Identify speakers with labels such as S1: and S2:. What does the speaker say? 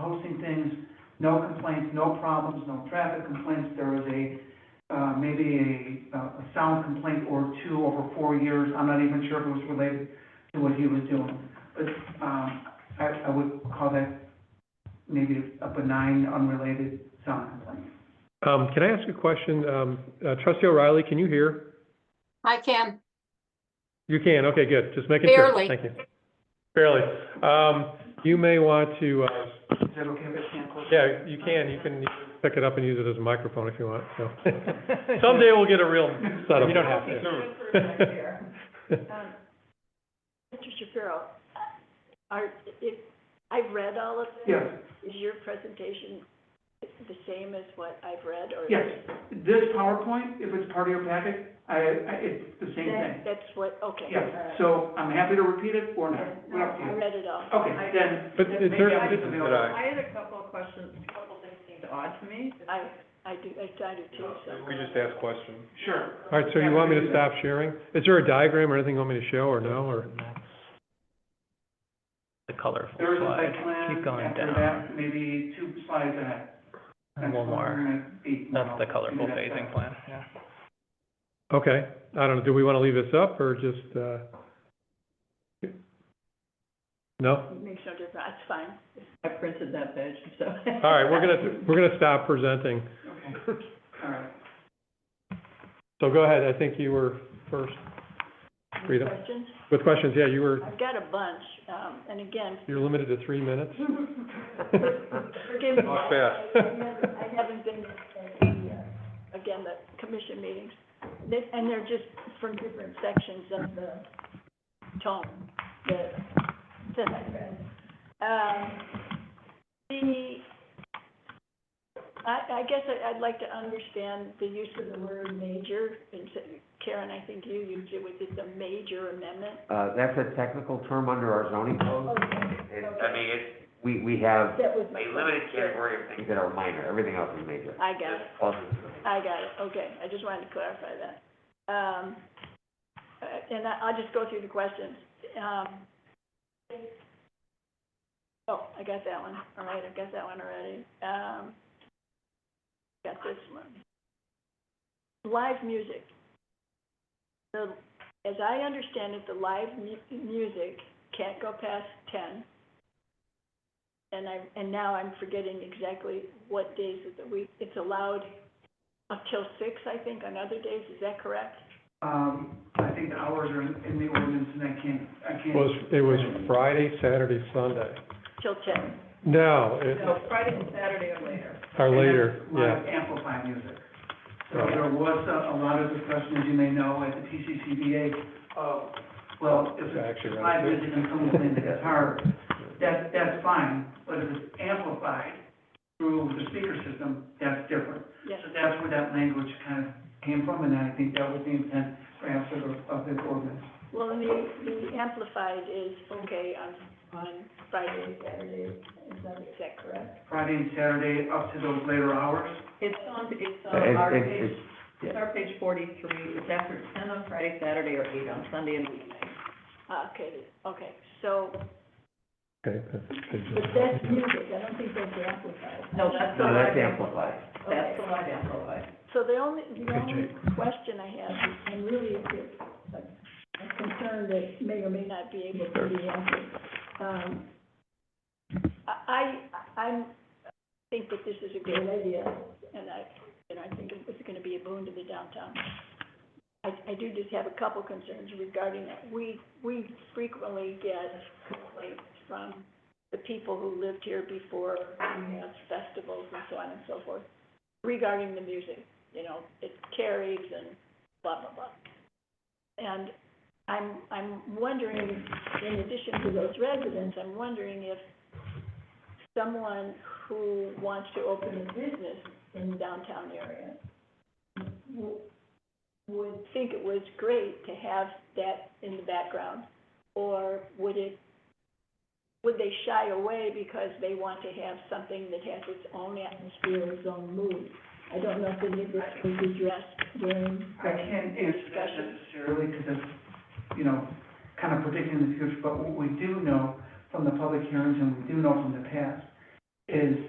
S1: posting things, no complaints, no problems, no traffic complaints. There was a, uh, maybe a, a sound complaint or two over four years. I'm not even sure if it was related to what he was doing. But, um, I, I would call that maybe a benign, unrelated sound complaint.
S2: Um, can I ask a question? Um, uh, trustee O'Reilly, can you hear?
S3: I can.
S2: You can, okay, good, just making sure.
S3: Barely.
S2: Thank you. Barely. Um, you may want to, uh,
S1: Is that okay if I stand closer?
S2: yeah, you can, you can pick it up and use it as a microphone if you want, so. Someday we'll get a real setup.
S4: You don't have to.
S5: Um, Mr. Shapiro, are, if, I've read all of this.
S1: Yes,
S5: Is your presentation the same as what I've read, or?
S1: yes. This PowerPoint, if it's part of your packet, I, I, it's the same thing.
S5: That- That's what, okay.
S1: Yeah, so I'm happy to repeat it or not,
S5: No,
S1: what up to
S5: I
S1: you.
S5: read it all.
S1: Okay, then.
S2: But
S1: maybe
S2: is there-
S1: I just-
S2: did I-
S6: I had a couple of questions, a couple things seemed odd to me.
S5: I, I do, I I do too, so.
S4: ask questions.
S1: Sure.
S2: All right, so you want me to stop sharing? Is there a diagram or anything you want me to show or no, or?
S4: The colorful
S1: There is a
S4: slide.
S1: site plan
S4: Keep going
S1: after
S4: down.
S1: that, maybe two slides ahead.
S4: And one more. That's the colorful phasing plan, yeah.
S2: Okay, I don't know, do we want to leave this up or just, uh? No?
S5: It makes no difference, that's fine.
S6: I printed that badge, so.
S2: All right, we're gonna, we're gonna stop presenting.
S1: Okay, all right.
S2: So go ahead, I think you were first
S5: Any
S2: Rita?
S5: Questions?
S2: with questions, yeah, you were,
S5: I've got a bunch, um, and again,
S2: you're limited to three minutes.
S5: forgive me.
S4: Not fast.
S5: I haven't- I haven't been at the, uh, again, the commission meetings, They- and they're just from different sections of the tone that, that I read. Um, the, I, I guess I- I'd like to understand the use of the word major, and so- Karen, I think you used it, was it a major amendment?
S7: Uh, that's a technical term under our zoning
S5: Oh,
S7: code. It, I mean, it, we, we have
S5: That was my.
S7: a limited category of things that are minor, everything else is major.
S5: I got it.
S7: All this-
S5: I got it, okay, I just wanted to clarify that. Um, uh, and I, I'll just go through the questions. Um, oh, I got that one, all right, I've got that one already. Um, got this one. Live music. The, as I understand it, the live mu- music can't go past ten. And I, and now I'm forgetting exactly what days of the week, it's allowed up till six, I think, on other days, is that correct?
S1: Um, I think the hours are in in the ordinance and I can't, I
S2: It
S1: can't.
S2: was, it was Friday, Saturday, Sunday.
S5: Till ten?
S2: No, it,
S6: No, Friday and Saturday or later.
S2: or
S1: And that's
S2: later, yeah.
S1: Live amplified music. So
S2: Right.
S1: there was a, a lot of discussion, as you may know, at the PCCBA of, well, if
S2: I
S1: it's
S2: actually read
S1: live
S2: it.
S1: music and someone's playing the guitar, that, that's fine, but if it's amplified through the speaker system, that's different.
S5: Yes.
S1: So that's where that language kind of came from, and I think that was the intent perhaps of, of this ordinance.
S5: Well, and the, the amplified is okay on, on Friday and Saturday, is that, is that correct?
S1: Friday and Saturday up to those later hours.
S6: It's on, it's
S7: Uh,
S6: on
S7: it-
S6: our
S7: it-
S6: page,
S7: it's-
S6: it's our page forty-three, it's after ten on Friday, Saturday, or eight on Sunday and weekday.
S5: Ah, okay, okay, so,
S2: Okay, that's-
S5: but that's music, I don't think that's amplified.
S6: No, that's the
S7: No,
S6: live
S7: that's
S6: amplified.
S7: amplified.
S6: That's the live amplified.
S5: So the only, the
S2: Okay,
S5: only question I have, is, and really it's a, a concern that may or may not be able to be answered. Um, I, I, I'm, think that this is a great idea, and I, and I think it's gonna be a boon to the downtown. I, I do just have a couple concerns regarding that. We, we frequently get complaints from the people who lived here before, we had festivals and so on and so forth, regarding the music you know, it carries and blah, blah, blah. And I'm, I'm wondering, in addition to those residents, I'm wondering if someone who wants to open a business in the downtown area w- would think it was great to have that in the background, or would it, would they shy away because they want to have something that has its own atmosphere, its own mood? I don't know if any of this was addressed during
S1: I can't
S5: the
S1: answer that
S5: discussion.
S1: necessarily because it's, you know, kind of predicting the future, but what we do know from the public hearings and we do know from the past is